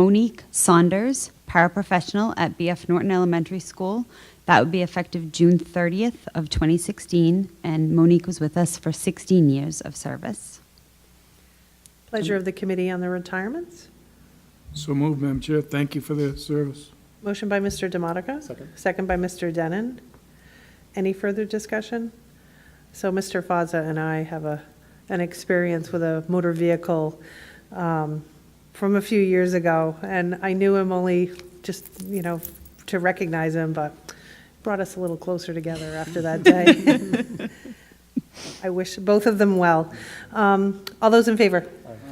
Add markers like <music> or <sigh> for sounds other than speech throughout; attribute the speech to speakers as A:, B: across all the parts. A: Monique Saunders, paraprofessional at BF Norton Elementary School. That would be effective June 30th of 2016, and Monique was with us for 16 years of service.
B: Pleasure of the Committee on the Retirements.
C: So moved, Madam Chair. Thank you for the service.
B: Motion by Mr. Demotica.
D: Second.
B: Second by Mr. Denon. Any further discussion? So Mr. Fazza and I have a, an experience with a motor vehicle um, from a few years ago, and I knew him only just, you know, to recognize him, but brought us a little closer together after that day. I wish both of them well. Um, All those in favor?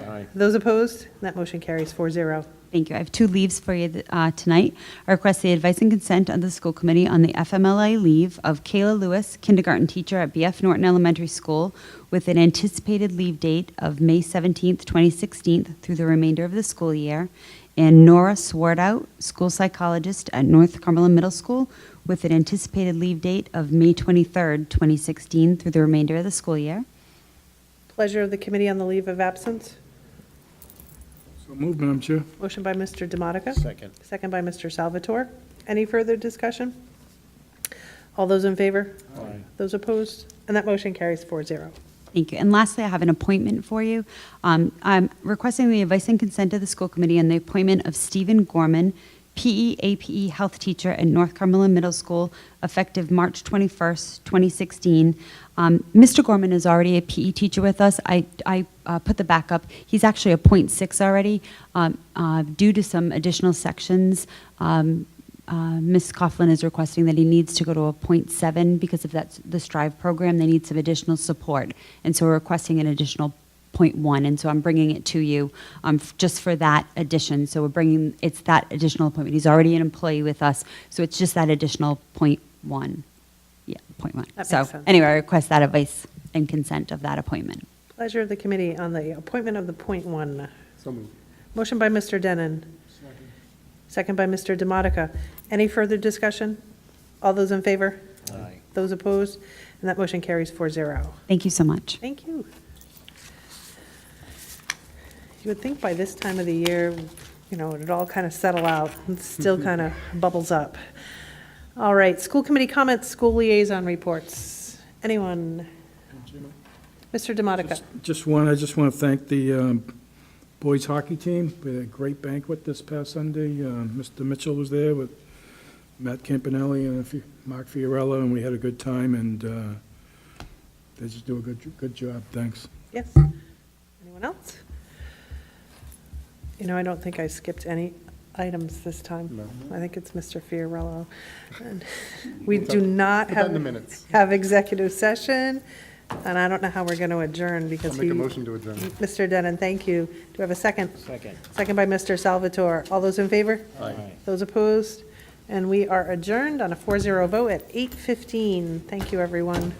D: Aye.
B: Those opposed? That motion carries 4-0.
A: Thank you. I have two leaves for you uh, tonight. I request the advice and consent of the school committee on the FMLA leave of Kayla Lewis, kindergarten teacher at BF Norton Elementary School, with an anticipated leave date of May 17th, 2016 through the remainder of the school year, and Nora Swartout, school psychologist at North Cumberland Middle School, with an anticipated leave date of May 23rd, 2016 through the remainder of the school year.
B: Pleasure of the Committee on the Leave of Absence.
C: So moved, Madam Chair.
B: Motion by Mr. Demotica.
D: Second.
B: Second by Mr. Salvatore. Any further discussion? All those in favor?
D: Aye.
B: Those opposed? And that motion carries 4-0.
A: Thank you. And lastly, I have an appointment for you. Um, I'm requesting the advice and consent of the school committee on the appointment of Stephen Gorman, E PE APE health teacher at North Cumberland Middle School, effective March 21st, 2016. Um, Mr. Gorman is already a PE teacher with us. I, I uh, put the back up. He's actually a .6 already. Um, uh, due to some additional sections, um, uh, Ms. Coughlin is requesting that he needs to go to a .7 because of that, the STRIVE program, they need some additional support. And so we're requesting an additional .1, and so I'm bringing it to you um, f- just for that addition. So we're bringing, it's that additional appointment. He's already an employee with us, so it's just that additional .1. Yeah, .1.
B: That
A: So
B: makes sense.
A: anyway, I request that advice and consent of that appointment.
B: Pleasure of the Committee on the appointment of the point one.
D: So moved.
B: Motion by Mr. Denon. Second by Mr. Demotica. Any further discussion? All those in favor?
D: Aye.
B: Those opposed? And that motion carries 4-0.
A: Thank you so much.
B: Thank you. You would think by this time of the year, you know, it'd all kind of settle out, it still kind of bubbles up. All right, school committee comments, school liaison reports. Anyone? Mr. Demotica,
C: Just one, I just want to thank the um, boys hockey team for a great banquet this past Sunday. Uh, Mr. Mitchell was there with Matt Campanelli and a few- Mark Fiorella, and we had a good time, and uh, they just do a good, good job. Thanks.
B: yes? Anyone else? You know, I don't think I skipped any items this time.
D: No.
B: I think it's Mr. Fiorello.
D: <laughs>
B: And We do not
D: Put
B: have.
D: that in the minutes.
B: have executive session, and I don't know how we're going to adjourn because
D: I'll
B: he.
D: make a motion to adjourn.
B: Mr. Denon, thank you. Do we have a second?
D: Second.
B: Second by Mr. Salvatore. All those in favor?
D: Aye.
B: Those opposed? And we are adjourned on a 4-0 vote at 8:15. Thank you, everyone.